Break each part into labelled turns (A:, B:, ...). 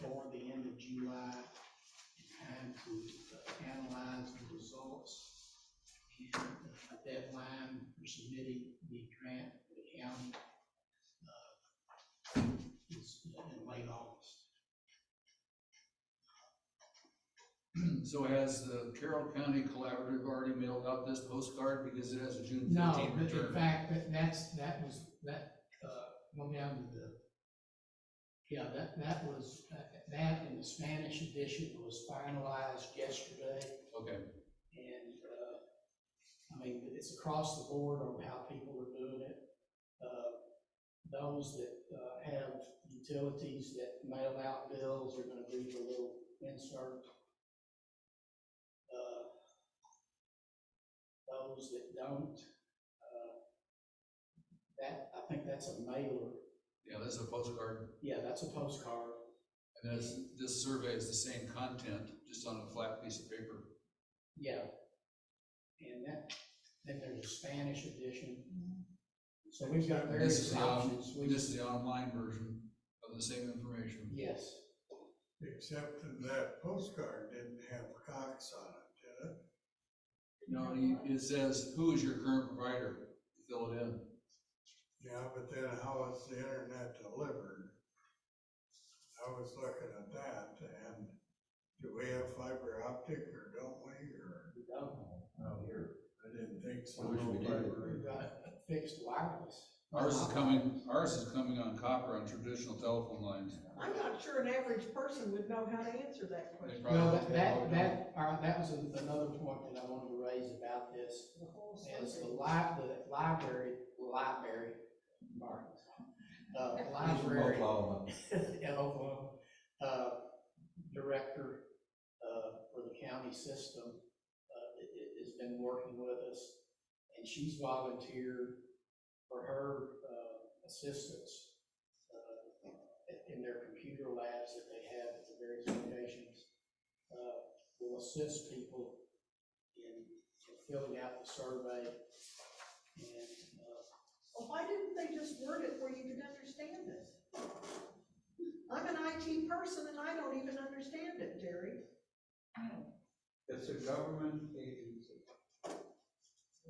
A: for uh, the end of July in time to uh, analyze the results. And uh, a deadline for submitting the grant to the county uh, is in late August.
B: So has the Carroll County Collaborative already mailed out this postcard because it has a June
A: No,
B: fifteenth
A: but in
B: return?
A: fact, that, that's, that was, that, uh, went down to the, yeah, that, that was, that- that and the Spanish edition was finalized yesterday.
B: Okay,
A: And, uh, I mean, it's across the board on how people are doing it. Uh, Those that, uh, have utilities that mail out bills are gonna leave a little insert. Uh, Those that don't, uh, that, I think that's a mailer.
B: yeah, this is a postcard,
A: Yeah, that's a postcard.
B: and this, this survey is the same content, just on a flat piece of paper.
A: Yeah. And that, then there's a Spanish edition. So we've got
B: And this
A: various
B: is the on-
A: options. We
B: This is the online version of the same information.
A: Yes,
C: Except that that postcard didn't have Cox on it, did it?
B: No, you- it says, who is your current provider? Fill it in.
C: Yeah, but then how is the internet delivered? I was looking at that and do we have fiber optic or don't we, or?
A: we don't know.
B: Oh,
C: No, here. I didn't think so.
D: I wish we did.
A: We've got fixed wireless.
B: Ours is coming, ours is coming on copper on traditional telephone lines.
E: I'm not sure an average person would know how to answer that question.
B: They
A: No,
B: probably-
A: that, that, that, all right, that was an- another point that I wanted to raise about this.
E: The whole
A: is the
E: survey.
A: li- the library, library, Mark. Uh, library.
D: Oklahoma.
A: in Oklahoma, uh, director, uh, for the county system, uh, i- i- has been working with us. And she's volunteered for her, uh, assistance, uh, in- in their computer labs that they have at the various locations. Uh, will assist people in in filling out the survey and, uh,
E: Well, why didn't they just word it where you could understand it? I'm an IT person and I don't even understand it, Jerry.
F: It's a government agency.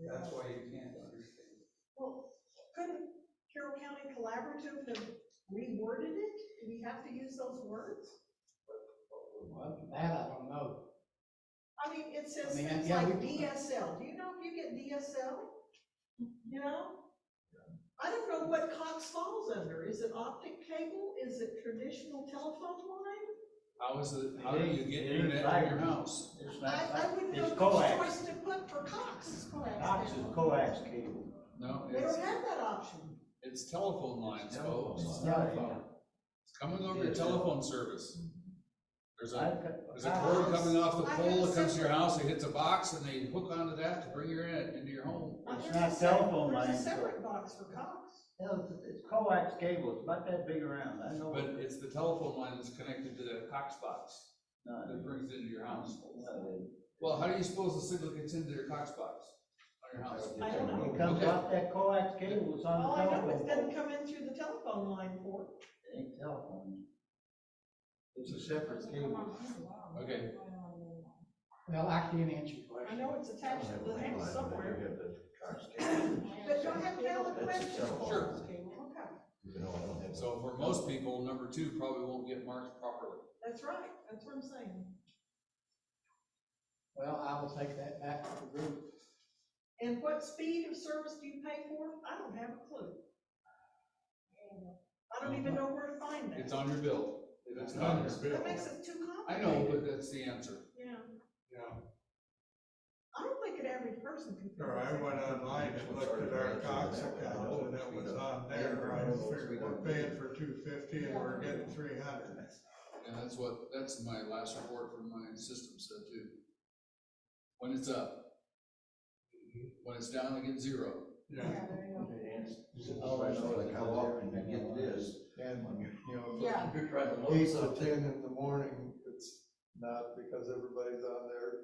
F: That's why you can't understand. it.
E: Well, couldn't Carroll County Collaborative have reworded it? Do we have to use those words?
A: well, that I don't know.
E: I mean, it
A: I
E: says
A: mean,
E: things
A: yeah,
E: like
A: we-
E: DSL. Do you know if you get DSL? You know? I don't know what Cox falls under. Is it optic cable? Is it traditional telephone line?
B: How is it, how do you get internet in your house?
F: It's
E: I, I
F: not,
E: wouldn't know
F: it's
E: which
F: coax.
E: choice to put for Cox. It's coax.
F: Cox is
E: now.
F: coax cable.
B: No,
E: They
B: it's,
E: don't have that option.
B: it's telephone lines, folks.
F: Telephone.
B: It's
F: Telephone.
B: Coming over your telephone service.
F: Mm-hmm.
B: There's a,
F: I've got-
B: there's a cord coming off the
E: I
B: pole that
E: have
B: comes to your house, it hits a box, and they hook onto that to bring your in, into your home.
E: Now,
F: It's
E: there's
F: not
E: a sep-
F: telephone
E: There's
F: lines,
E: a
F: though.
E: separate box for Cox.
F: No, it's- It's coax cable, it's about that big around, I know.
B: But it's the telephone line that's connected to that Cox box
F: No,
B: that brings it into your house.
F: no, it-
B: Well, how do you suppose the signal gets into your Cox box on your house?
E: I don't know.
F: It comes
B: Okay.
F: off that coax cable, it's
E: All
F: on the
E: Oh, I know is it
F: telephone.
E: doesn't come in through the telephone line for.
F: It ain't telephone. It's a separate cable.
B: Okay.
E: Oh.
A: Well, I can't answer your question.
E: I know it's attached to the house somewhere. But
G: But
E: don't have valid
D: That's
E: questions.
D: itself.
B: Sure.
E: Okay,
B: So for most people, number two probably won't get marked properly.
E: that's right, that's what I'm saying.
A: Well, I will take that back to the group.
E: And what speed of service do you pay for? I don't have a clue. I don't even know where to find
B: It's
E: that.
B: on your bill. If it's not,
E: That makes it too
B: I
E: complicated.
B: know, but that's the answer.
E: Yeah,
C: Yeah,
E: I don't think an average person can. figure
C: or I
E: this out.
C: went online and looked at our Cox account and it was on there, I figured we're paying for two fifty and we're getting three hundred.
B: And that's what, that's my last report from my system said too. When it's up. When it's down, I get zero.
C: Yeah,
E: there you go.
D: Like how often you get this.
H: And, you know,
E: Yeah.
D: You're trying to load
H: eight or
D: something.
H: ten in the morning, it's not because everybody's on there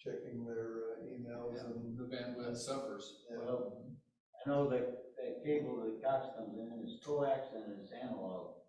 H: checking their uh, emails and.
B: The bandwidth suffers.
F: Well, I know that, that cable that Cox comes in is coax and it's analog.